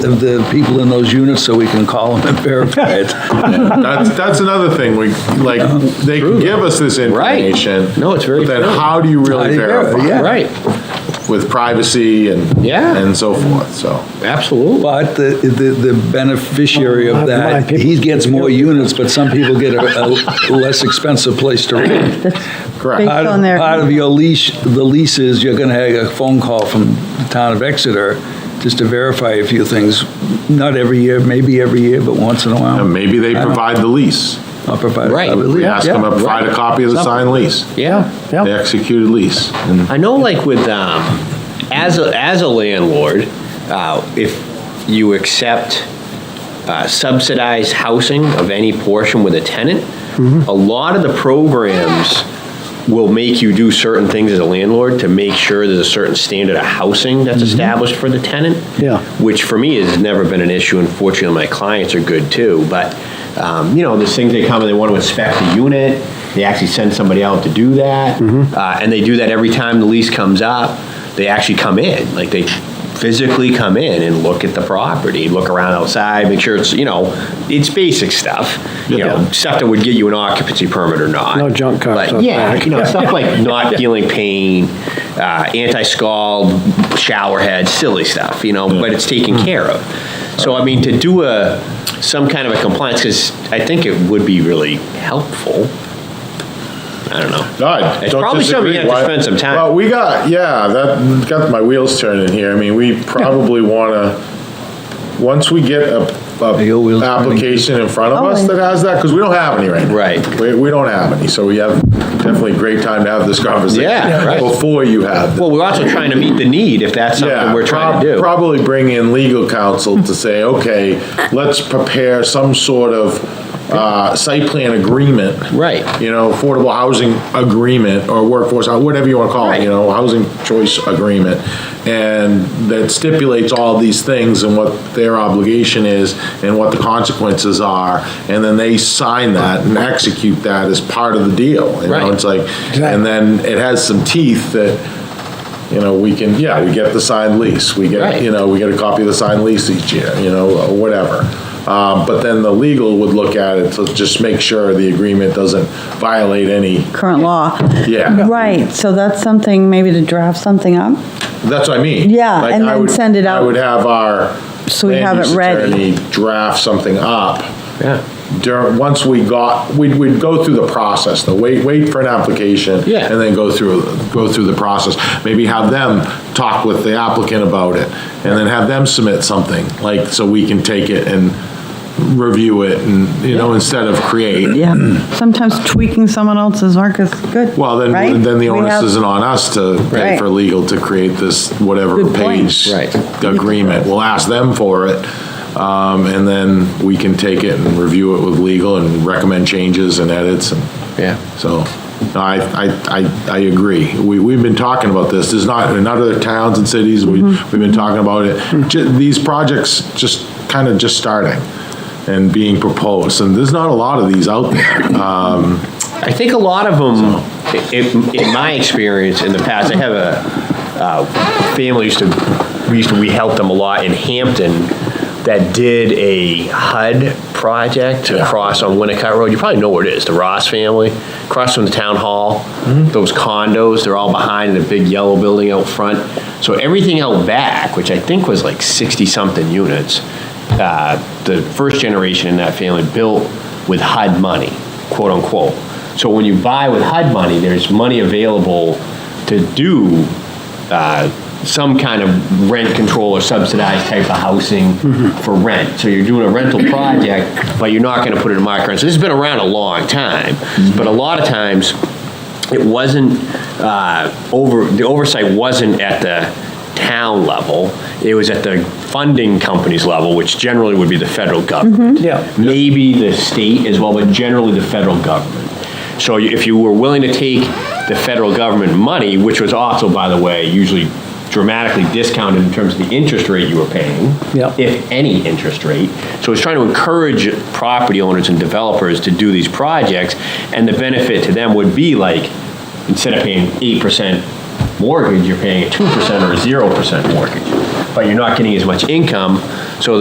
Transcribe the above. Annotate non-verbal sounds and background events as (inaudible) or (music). the- the people in those units so we can call them and verify it. That's, that's another thing, we, like, they can give us this Right. information. No, it's very But then true. how do you How do really you verify, verify? yeah. Right, With privacy and. Yeah. And so forth, so. absolutely. But the, the the beneficiary of that, he gets more units, but some people get a a less expensive place to rent. Correct. Part on of- their- part of your leash, the lease is you're gonna have a phone call from the town of Exeter just to verify a few things. Not every year, maybe every year, but once in a And while. maybe they provide the lease. I'll provide- Right. We ask them to Yeah, provide a right. copy of the signed lease, Yeah. the executed lease. And I know like with, um, as a, as a landlord, uh, if you accept uh, subsidized housing of any portion with a tenant, a lot of the programs will make you do certain things as a landlord to make sure there's a certain standard of housing that's established for the tenant. Mm-hmm. Yeah. Which for me has never been an issue, and fortunately, my clients are good too, but, um, you know, there's things they come and they want to inspect the unit, they actually send somebody out to do that, Mm-hmm. Uh, and they do that every time the lease comes up, they actually come in, like they physically come in and look at the property, look around outside, make sure it's, you know, it's basic stuff, you know, stuff that would get you an occupancy permit or not. No junk cars But out Yeah, back. you know, (laughs) stuff like not feeling pain, uh, anti-scald, shower head, silly stuff, you know, but it's taken Mm-hmm. care of. So I mean, to do a, some kind of a compliance, because I think it would be really helpful. I don't know. God, It's don't probably disagree. something you have to Why- spend some time- Well, we got, yeah, that got my wheels turning here. I mean, we (laughs) probably want to, once we get a, Your a wheels turning. application in front of Oh, us and- that has that, because we don't have any right now. Right. We, we don't have any, so we have definitely great time to have this conversation. Yeah, right. Before you have. the- Well, we're also trying to meet the need, if that's something Yeah, we're trying prob- to do. Probably bring in legal counsel to say, okay, let's prepare some sort of uh, site plan agreement. Right. You know, affordable housing agreement or workforce, hou- whatever you want to call it, you Right. know, housing choice agreement. And that stipulates all these things and what their obligation is and what the consequences are. And then they sign that and execute that as part of the deal. You know, Right. it's like, and then it has some teeth that you know, we can, yeah, we get the signed lease, we get, Right. you know, we get a copy of the signed lease each year, you know, or whatever. Um, But then the legal would look at it to just make sure the agreement doesn't violate any, current law. yeah, Right, so that's something, maybe to draft something up, that's what I mean. Yeah, Like, and I then would- send it I out. would have our so we land have use it ready. attorney Draft something up. Yeah. during, once we got, we'd, we'd go through the process, the wait, wait for an application. Yeah. And then go through, go through the process, maybe have them talk with the applicant about it, and then have them submit something, like, so we can take it and review it, and, you know, instead of create. Yeah, sometimes tweaking someone else's work is good. Well, right? then, then the We onus have- isn't on us to pay Right. for legal to create this whatever Good point. page. Right. Agreement, we'll ask them for it, um, and then we can take it and review it with legal and recommend changes and edits and. Yeah. So, no, I, I, I, I agree. We, we've been talking about this, there's not, in other towns and cities, we, Mm-hmm. we've been talking about it. Ju- These projects just, kind of just starting and being proposed, and there's not a lot of these out there. Um, I think a lot of them, in, in my experience in the past, I have a uh, family used to, we used to, we helped them a lot in Hampton that did a HUD project across on Winnicott Road. You probably know where it is, the Ross family, across from the town hall. Those condos, they're all behind in a big yellow building out front. So everything out back, which I think was like 60-something units, uh, the first generation in that family built with HUD money, quote unquote. So when you buy with HUD money, there's money available to do uh, some kind of rent control or subsidized type of housing for rent. So you're doing a rental project, but you're not going to put it in market rent. So this has been around a long time, but a lot of times, it wasn't, uh, over, the oversight wasn't at the town level, it was at the funding company's level, which generally would be the federal government. Yeah. Maybe the state as well, but generally the federal government. So you- if you were willing to take the federal government money, which was also, by the way, usually dramatically discounted in terms of the interest rate you were paying, Yeah. if any interest rate. So it's trying to encourage property owners and developers to do these projects, and the benefit to them would be like, instead of paying 8% mortgage, you're paying a 2% or a 0% mortgage, but you're not getting as much income,